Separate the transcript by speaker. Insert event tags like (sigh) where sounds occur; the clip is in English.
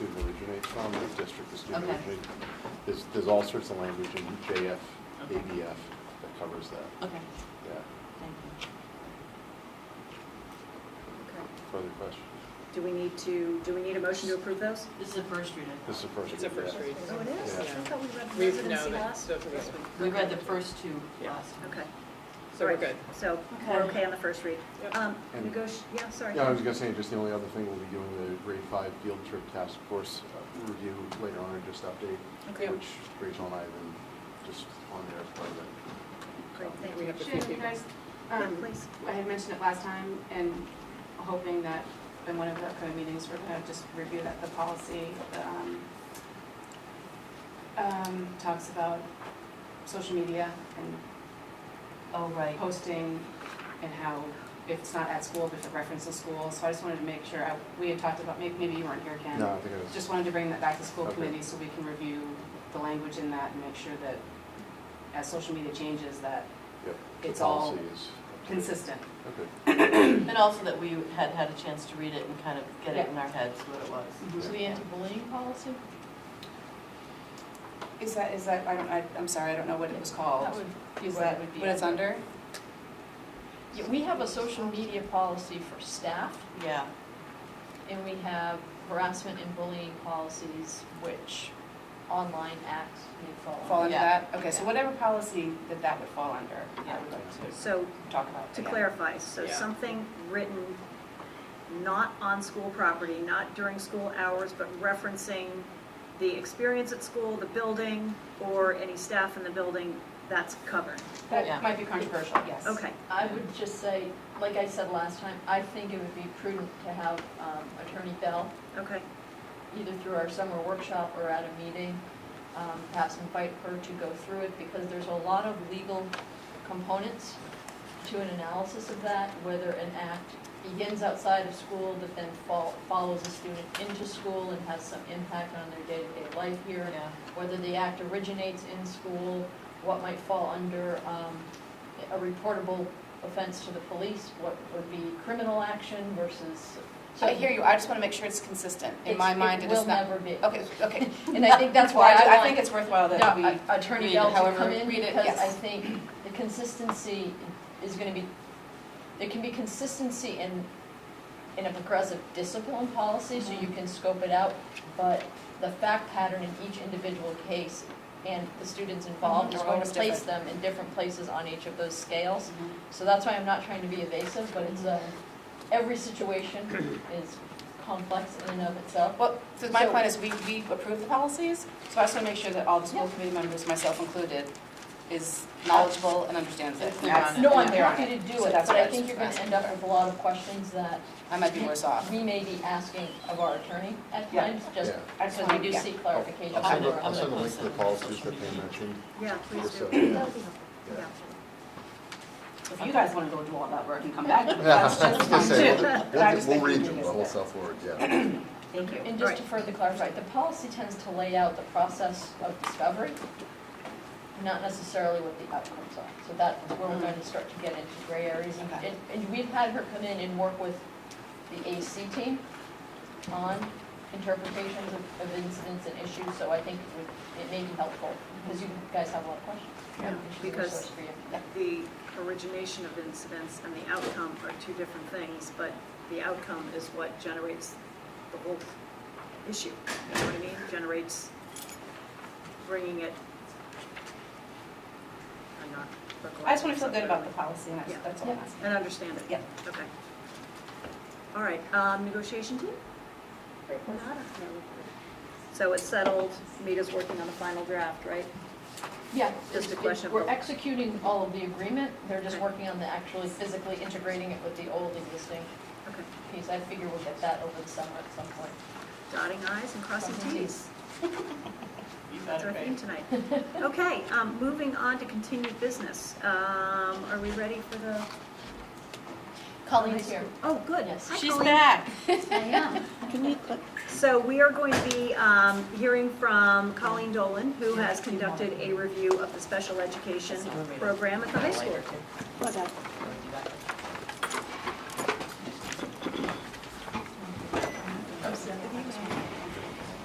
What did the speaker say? Speaker 1: Conduit District is doing.
Speaker 2: Okay.
Speaker 1: it. There's, there's all sorts of language in JF, ABF that covers that.
Speaker 2: Okay,
Speaker 1: Yeah.
Speaker 2: thank you.
Speaker 3: Okay.
Speaker 1: Further questions?
Speaker 3: Do we need to, do we need a motion to approve those?
Speaker 2: This is the first reading.
Speaker 1: This is the first.
Speaker 4: It's a
Speaker 1: read,
Speaker 4: first
Speaker 1: yeah.
Speaker 4: read.
Speaker 3: Oh, it is? I
Speaker 1: Yeah.
Speaker 3: thought we read
Speaker 4: We've- no,
Speaker 3: residency
Speaker 4: that-
Speaker 3: last.
Speaker 4: those are this one.
Speaker 2: We read the first two
Speaker 4: Yeah.
Speaker 2: last time.
Speaker 3: Okay.
Speaker 4: So we're
Speaker 3: Right.
Speaker 4: good.
Speaker 3: So we're
Speaker 2: Okay.
Speaker 3: okay on the first read.
Speaker 4: Yep.
Speaker 3: Um,
Speaker 1: And-
Speaker 3: negoti, yeah, sorry.
Speaker 1: Yeah, I was gonna say, just the only other thing, we'll be doing the grade five field trip task force uh, review later on, or just
Speaker 3: Okay.
Speaker 1: update, which Rachel and I have been just on there as part of it. Um,
Speaker 3: Great, thank
Speaker 4: We
Speaker 3: you.
Speaker 4: have a few
Speaker 5: Shannon,
Speaker 4: people.
Speaker 5: guys,
Speaker 3: Yeah,
Speaker 5: um,
Speaker 3: please.
Speaker 5: I had mentioned it last time and hoping that in one of the upcoming meetings, we're gonna just review that, the policy, um, um, talks about social media and
Speaker 2: Oh, right.
Speaker 5: posting and how if it's not at school, if it references school. So I just wanted to make sure, I- we had talked about, maybe, maybe you weren't here, Ken.
Speaker 1: No, I think it was,
Speaker 5: Just wanted to bring that back to school
Speaker 1: Okay.
Speaker 5: committee so we can review the language in that and make sure that as social media changes, that
Speaker 1: yep. the
Speaker 5: it's all
Speaker 1: policy is up to date.
Speaker 5: consistent.
Speaker 1: Okay.
Speaker 2: And also that we had had a chance to read it and kind of get it in our heads what it
Speaker 5: Mhm.
Speaker 2: was. So the anti-bullying policy?
Speaker 5: Is that, is that, I don't, I, I'm sorry, I don't know what it was called.
Speaker 6: That would be
Speaker 5: Is
Speaker 6: what it
Speaker 5: that
Speaker 6: would be
Speaker 5: what it's under?
Speaker 6: Yeah, we have a social media policy for staff,
Speaker 2: Yeah.
Speaker 6: and we have harassment and bullying policies, which online acts may fall under.
Speaker 5: Fall under
Speaker 2: Yeah.
Speaker 5: that? Okay, so whatever policy that that would fall under, I would like to
Speaker 3: So
Speaker 5: talk about.
Speaker 3: to
Speaker 5: again.
Speaker 3: clarify, so
Speaker 4: Yeah.
Speaker 3: something written not on school property, not during school hours, but referencing the experience at school, the building, or any staff in the building, that's covered.
Speaker 2: Yeah.
Speaker 5: That might be controversial, yes.
Speaker 3: Okay,
Speaker 6: I would just say, like I said last time, I think it would be prudent to have um, Attorney Bell,
Speaker 3: okay,
Speaker 6: either through our summer workshop or at a meeting, um, perhaps invite her to go through it, because there's a lot of legal components to an analysis of that, whether an act begins outside of school, but then fol- follows a student into school and has some impact on their day-to-day life here,
Speaker 2: Yeah.
Speaker 6: whether the act originates in school, what might fall under um, a reportable offense to the police, what would be criminal action versus.
Speaker 5: So I hear you, I just want to make sure it's consistent. In my
Speaker 6: It's-
Speaker 5: mind, it is
Speaker 6: It
Speaker 5: not.
Speaker 6: will never be.
Speaker 5: Okay, okay.
Speaker 6: (laughs) And I think that's
Speaker 5: (laughs)
Speaker 6: why
Speaker 5: Well,
Speaker 6: I
Speaker 5: I think
Speaker 6: want
Speaker 5: it's worthwhile that we
Speaker 6: yeah, Attorney
Speaker 5: read
Speaker 6: Bell
Speaker 5: it
Speaker 6: to
Speaker 5: however,
Speaker 6: come in
Speaker 5: read it,
Speaker 6: because I
Speaker 5: yes.
Speaker 6: think the consistency is going to be, there can be consistency in, in a progressive discipline policy, so
Speaker 5: Mm-hmm.
Speaker 6: you can scope it out, but the fact pattern in each individual case and the students involved
Speaker 5: Mhm.
Speaker 6: is
Speaker 5: Are
Speaker 6: going to
Speaker 5: always
Speaker 6: place them in different places on each of those scales.
Speaker 5: Mhm.
Speaker 6: So that's why I'm not trying to be evasive, but it's a, every situation is complex in and of itself.
Speaker 5: Well, so my
Speaker 6: So-
Speaker 5: point is, we, we approve the policies, so I just want to make sure that all the school
Speaker 6: Yeah.
Speaker 5: committee members, myself included, is knowledgeable and understands it.
Speaker 2: It's
Speaker 5: and
Speaker 2: not
Speaker 5: that's-
Speaker 2: on it.
Speaker 6: No, I'm
Speaker 5: and they're on
Speaker 6: happy to do
Speaker 5: So
Speaker 6: it,
Speaker 5: that's
Speaker 6: but
Speaker 5: what
Speaker 6: I
Speaker 5: was
Speaker 6: think you're gonna
Speaker 5: asking
Speaker 6: end up
Speaker 5: for.
Speaker 6: with a lot of questions that
Speaker 5: I might be worse
Speaker 6: (laughs)
Speaker 5: off.
Speaker 6: we may be asking of our attorney at
Speaker 5: Yeah.
Speaker 6: times, just
Speaker 1: Yeah.
Speaker 5: I just
Speaker 6: because
Speaker 5: wanna-
Speaker 6: we do
Speaker 5: yeah. Oh,
Speaker 6: seek clarification.
Speaker 1: I'll send the,
Speaker 6: from our
Speaker 1: I'll
Speaker 6: own.
Speaker 1: send the link
Speaker 2: post
Speaker 1: to the
Speaker 2: it on
Speaker 1: policies
Speaker 2: social
Speaker 1: that they
Speaker 2: media.
Speaker 1: mentioned.
Speaker 3: yeah, please
Speaker 1: Just
Speaker 3: do.
Speaker 1: so- yeah.
Speaker 3: Yeah.
Speaker 5: If you guys want to go do all that work and come (laughs) back,
Speaker 1: Yeah, I (laughs) was
Speaker 5: that's just
Speaker 1: gonna
Speaker 5: fine too.
Speaker 1: say,
Speaker 5: But I just
Speaker 1: we'll,
Speaker 5: think
Speaker 1: we'll
Speaker 5: we
Speaker 1: read
Speaker 5: do
Speaker 1: you the
Speaker 5: this
Speaker 1: whole South
Speaker 5: bit.
Speaker 1: Florida, yeah.
Speaker 3: Thank you.
Speaker 6: And just to further clarify, the policy tends to lay out the process of discovery, not necessarily what the outcomes are. So that's where we're going to start to get into gray areas. And-
Speaker 5: Mm-hmm. Okay.
Speaker 6: And, and we've had her come in and work with the AC team on interpretations of, of incidents and issues, so I think it would, it may be helpful, because you guys have a lot of questions.
Speaker 3: Yeah,
Speaker 6: And she's a
Speaker 3: because-
Speaker 6: resource for you.
Speaker 3: the origination of incidents and the outcome are two different things, but the outcome is what generates the whole issue. You know what I mean? Generates bringing it. I'm not.
Speaker 5: I just want to feel good about the policy, and
Speaker 3: Yeah.
Speaker 5: that's, that's all I'm asking.
Speaker 3: And understand it.
Speaker 5: Yeah.
Speaker 3: Okay. All right, um, negotiation team?
Speaker 4: Great.
Speaker 3: Nada. So it's settled, Mita's working on the final draft, right?
Speaker 6: Yeah.
Speaker 3: Just a
Speaker 6: it's-
Speaker 3: question of
Speaker 6: We're
Speaker 3: the-
Speaker 6: executing all of the agreement, they're just
Speaker 3: Okay.
Speaker 6: working on the actually physically integrating it with the old existing
Speaker 3: Okay.
Speaker 6: piece. I figure we'll get that over the summer at some point.
Speaker 3: Dotting i's and crossing (laughs)
Speaker 6: Crossing
Speaker 3: t's.
Speaker 4: You
Speaker 3: That's our
Speaker 4: better
Speaker 3: theme
Speaker 4: pay. (laughs)
Speaker 3: tonight. Okay, um, moving on to continued business. Um, Are we ready for the?
Speaker 6: Colleen's here.
Speaker 3: Oh, good.
Speaker 6: Yes.
Speaker 3: Hi,
Speaker 2: She's
Speaker 3: Colleen.
Speaker 2: back.
Speaker 6: I am.
Speaker 3: Can we- So we are going to be um, hearing from Colleen Dolan, who has conducted a review of the special education program at the high school.
Speaker 2: Later, too.